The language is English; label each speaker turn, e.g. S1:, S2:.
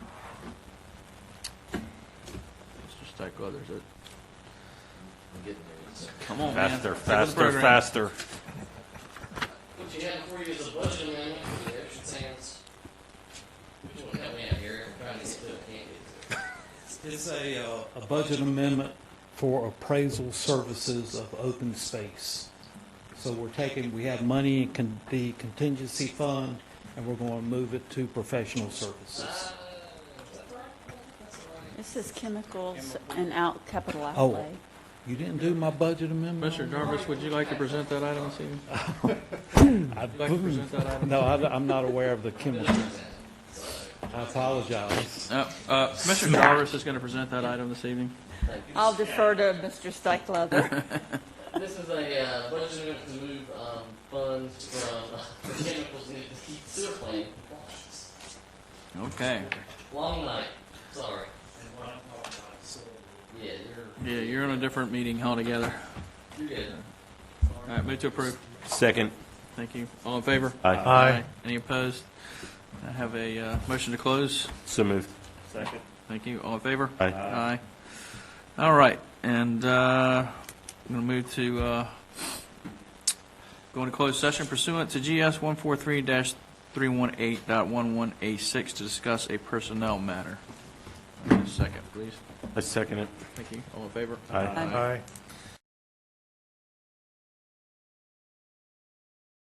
S1: like others. It-
S2: getting there. It's-
S1: Come on, man.
S3: Faster,
S1: Stick with the
S3: faster,
S1: program.
S3: faster.
S2: What you had for you is a budget amendment for the Ocean Sands. Which one help me out here? I'm trying to get to it, can't get to it.
S4: It's a, uh, a budget amendment for appraisal services of open space. So we're taking, we have money in con- the contingency fund, and we're going to move it to professional services.
S5: This is chemicals and out, capital
S4: Oh.
S5: outlay.
S4: You didn't do my budget amendment?
S1: Mr. Jarvis, would you like to present that item this evening? Would you like to present that item?
S4: No, I- I'm not aware of the chemical. I apologize.
S1: No, uh, Commissioner Jarvis is going to present that item this evening.
S2: Thank you.
S5: I'll defer to Mr. Stikelether.
S2: This is a uh, budget amendment to move um, funds from uh, the chemicals needed to keep sewer plant.
S1: Okay.
S2: Long night, sorry. Yeah, you're,
S1: Yeah, you're on a different meeting altogether.
S2: you're good.
S1: All right, move to approve.
S3: Second.
S1: Thank you. All in favor?
S3: Aye.
S1: Any opposed? I have a uh, motion to close.
S3: So moved.
S1: Thank you. All in favor?
S3: Aye.
S1: Aye. All right, and uh, I'm going to move to, uh, go into closed session pursuant to GS 143-318.11A6 to discuss a personnel matter. Give me a Second, please.
S3: I second it.
S1: Thank you. All in favor?
S3: Aye.
S5: Aye.
S6: Aye.